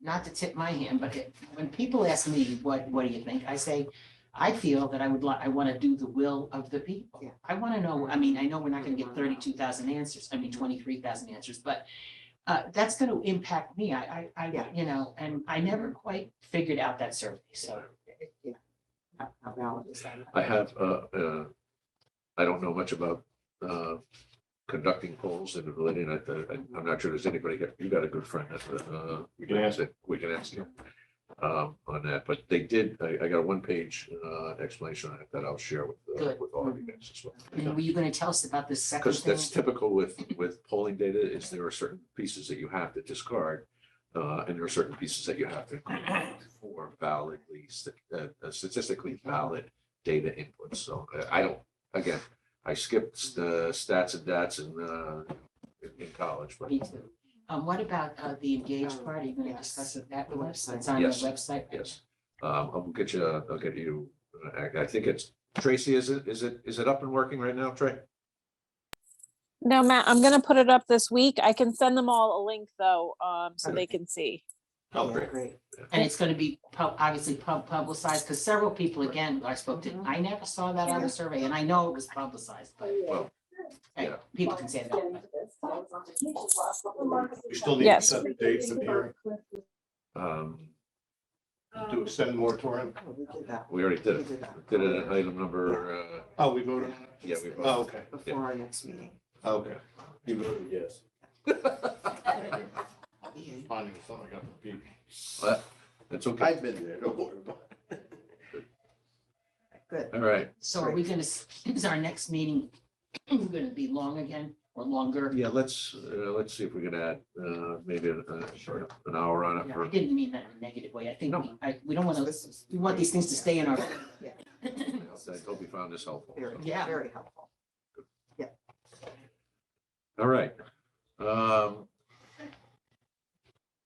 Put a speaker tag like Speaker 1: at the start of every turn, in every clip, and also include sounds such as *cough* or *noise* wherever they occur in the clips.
Speaker 1: not to tip my hand, but it- when people ask me, what, what do you think? I say, I feel that I would like, I want to do the will of the people.
Speaker 2: Yeah.
Speaker 1: I want to know, I mean, I know we're not going to get thirty-two thousand answers, I mean, twenty-three thousand answers, but uh, that's going to impact me. I, I, I,
Speaker 2: Yeah.
Speaker 1: you know, and I never quite figured out that survey, so.
Speaker 2: Yeah. How how valid is that?
Speaker 3: I have, uh, uh, I don't know much about, uh, conducting polls and relating, I, I- I'm not sure there's anybody, here. you got a good friend that, uh.
Speaker 4: We can ask.
Speaker 3: that We can ask him, um, on that, but they did, I, I got a one-page, uh, explanation on it that I'll share with, uh,
Speaker 1: Good.
Speaker 3: with all of you guys as well.
Speaker 1: And were you going to tell us about this second
Speaker 3: Because
Speaker 1: thing?
Speaker 3: that's typical with, with polling data, is there are certain pieces that you have to discard. Uh, and there are certain pieces that you have to include for validly, st- uh, uh, statistically valid data inputs. So uh, I don't, again, I skipped the stats and dats in, uh, in- in college, but
Speaker 1: Me too. Um, what about uh, the engaged
Speaker 2: Oh,
Speaker 1: party? You're going to
Speaker 2: yes.
Speaker 1: discuss it that, the website, it's
Speaker 2: Website.
Speaker 1: on the
Speaker 3: Yes.
Speaker 1: website?
Speaker 3: yes. Um, I'll get you, uh, I'll get you, uh, I, I think it's, Tracy, is it, is it, is it up and working right now, Trey?
Speaker 5: No, Matt, I'm gonna put it up this week. I can send them all a link though, um, so
Speaker 3: Okay.
Speaker 5: they can see.
Speaker 3: Oh,
Speaker 2: Yeah,
Speaker 3: great.
Speaker 1: And it's gonna be pub, obviously pub, publicized, because several people, again, I spoke to,
Speaker 2: Mhm.
Speaker 1: I never saw that other survey, and I know it was publicized, but
Speaker 3: Well,
Speaker 1: hey,
Speaker 3: yeah.
Speaker 1: people can say that. but-
Speaker 4: We still need to
Speaker 5: Yes.
Speaker 4: set the dates of the hearing,
Speaker 3: Um,
Speaker 4: to extend the moratorium.
Speaker 2: Oh, we did that
Speaker 3: we already did it,
Speaker 2: We did that.
Speaker 3: did it at item number, uh,
Speaker 4: Oh, we voted? on it?
Speaker 3: yeah, we. voted.
Speaker 4: Oh, okay, Oh,
Speaker 2: Before our next meeting.
Speaker 4: okay. You voted yes.
Speaker 3: uh,
Speaker 2: *laughs* Yeah.
Speaker 4: Finding something I got to repeat.
Speaker 3: Well, That's okay.
Speaker 4: I've been there, don't worry about it.
Speaker 2: Good.
Speaker 3: All right.
Speaker 1: So are we gonna, s- *clears throat* is our next meeting *clears throat* gonna be long again, or longer?
Speaker 3: Yeah, let's, uh, let's see if we can add, uh, maybe a, a short, an hour on it
Speaker 1: Yeah, I
Speaker 3: for,
Speaker 1: didn't mean that in a negative way, I think,
Speaker 3: No.
Speaker 1: we- I, we don't wanna,
Speaker 2: This is
Speaker 1: we want these things to stay in our.
Speaker 2: Yeah.
Speaker 3: I hope you found this helpful.
Speaker 2: very,
Speaker 1: Yeah.
Speaker 2: very helpful.
Speaker 3: All right. Um,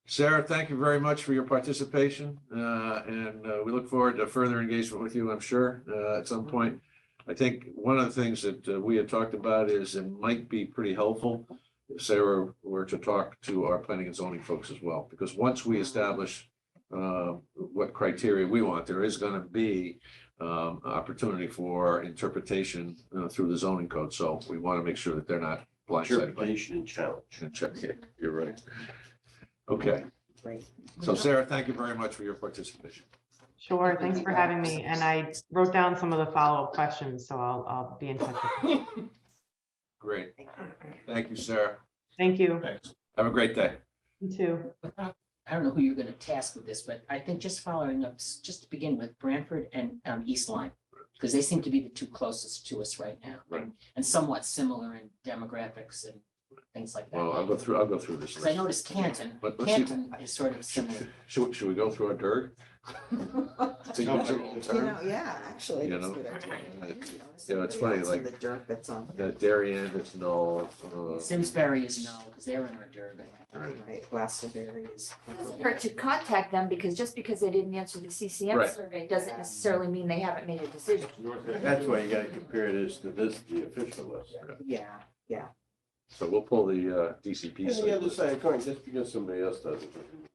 Speaker 3: Sarah, thank you very much for your participation, uh, and, uh, we look forward to further engagement with you, I'm sure, uh, at some point. I think one of the things that uh, we had talked about is it might be pretty helpful if Sarah were to talk to our planning and zoning folks as well, because once we establish uh, what criteria we want, there is gonna be um, opportunity for interpretation uh, through the zoning code, so we wanna make sure that they're not blindsided. by-
Speaker 6: Interpretation and challenge.
Speaker 3: Okay, You're right. Okay,
Speaker 2: Great.
Speaker 1: *laughs*
Speaker 3: so Sarah, thank you very much for your participation.
Speaker 7: Sure, thanks for having me. And I wrote down some of the follow-up questions, so I'll, I'll be in touch. with you.
Speaker 3: Great, thank you, Sarah.
Speaker 7: Thank you.
Speaker 3: Have a great day.
Speaker 7: You too.
Speaker 1: I don't know who you're gonna task with this, but I think just following up, s- just to begin with Branford and um East Line. Because they seem to be the two closest to us right now.
Speaker 3: Right.
Speaker 1: And somewhat similar in demographics and things like that.
Speaker 3: Well, I'll go through, I'll go through this.
Speaker 1: Because I
Speaker 3: list.
Speaker 1: noticed Canton,
Speaker 3: But let's see,
Speaker 1: Canton is sort of similar.
Speaker 3: should, should we go through our dirt? To
Speaker 4: No.
Speaker 3: use an old
Speaker 2: You
Speaker 3: term?
Speaker 2: know, yeah, actually.
Speaker 3: You
Speaker 2: that's a
Speaker 3: know,
Speaker 2: good idea.
Speaker 3: uh,
Speaker 2: You know,
Speaker 3: you know, it's
Speaker 2: somebody
Speaker 3: funny,
Speaker 2: else in
Speaker 3: like-
Speaker 2: The dirt that's on.
Speaker 3: That Darien is null. uh,
Speaker 1: Simsbury is no, because they're in our Durban.
Speaker 2: Right, Glastonbury is.
Speaker 8: Or to contact them, because just because they didn't answer the CCM
Speaker 3: Right.
Speaker 8: survey doesn't necessarily mean they haven't made a decision.
Speaker 6: That's why you gotta compare this to this, the official list.
Speaker 2: Yeah,
Speaker 3: So we'll pull the uh, DCP.
Speaker 6: And the other
Speaker 3: side.
Speaker 6: side of the coin, just because somebody else does it, doesn't mean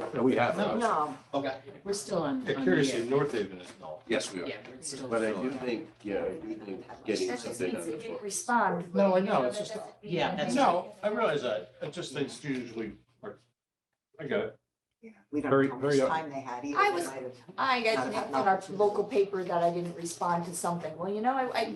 Speaker 6: that,
Speaker 3: No, We have.
Speaker 4: No.
Speaker 3: those.
Speaker 8: No,
Speaker 4: Okay.
Speaker 1: We're still on.
Speaker 4: Yeah,
Speaker 1: on
Speaker 4: curiously,
Speaker 1: the,
Speaker 4: North Haven is null.
Speaker 3: Yes, we
Speaker 1: uh,
Speaker 3: are.
Speaker 1: Yeah, we're still.
Speaker 6: But I do think, yeah, I do think getting
Speaker 8: that just
Speaker 6: something
Speaker 8: means
Speaker 6: on
Speaker 8: they
Speaker 6: this one.
Speaker 8: didn't respond.
Speaker 4: No, I
Speaker 8: You
Speaker 4: know, it's
Speaker 8: that
Speaker 4: just-
Speaker 8: doesn't mean
Speaker 1: Yeah,
Speaker 8: that
Speaker 1: that's-
Speaker 8: they-
Speaker 4: No, I realize that. I just think it's usually, I get it.
Speaker 2: yeah. We don't
Speaker 3: Very-
Speaker 2: know how much
Speaker 3: very up-
Speaker 2: time they had either.
Speaker 8: I
Speaker 2: They
Speaker 8: was-
Speaker 2: might have-
Speaker 8: I got
Speaker 2: Not-
Speaker 8: an
Speaker 2: not
Speaker 8: in our
Speaker 2: opportunity.
Speaker 8: local paper that I didn't respond to something. Well, you know, I, I,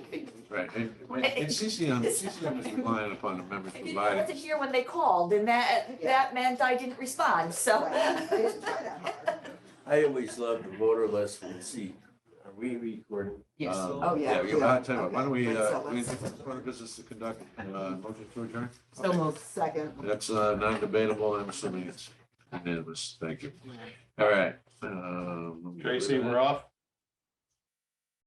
Speaker 3: Right, and, and- and CCM, CCM is relying upon the members
Speaker 8: I didn't, I wasn't
Speaker 3: providing.
Speaker 8: here when they called and that, that meant I didn't respond, so.
Speaker 2: Right, they didn't try that hard.
Speaker 6: I always love the voter list from the seat. Are we recording?
Speaker 1: Yes.
Speaker 3: Um,
Speaker 2: Oh, yeah,
Speaker 3: we have a hard
Speaker 2: yeah,
Speaker 3: time. Why don't we,
Speaker 2: okay.
Speaker 3: uh,
Speaker 2: So
Speaker 3: we
Speaker 2: let's-
Speaker 3: have business to conduct, uh, motion to adjourn?
Speaker 2: Oh,
Speaker 1: So moved.
Speaker 2: Second.
Speaker 3: That's uh, non-debatable. I'm assuming it's unanimous. Thank you. All right. um, let me get rid of
Speaker 4: Tracy,
Speaker 3: that.
Speaker 4: we're off.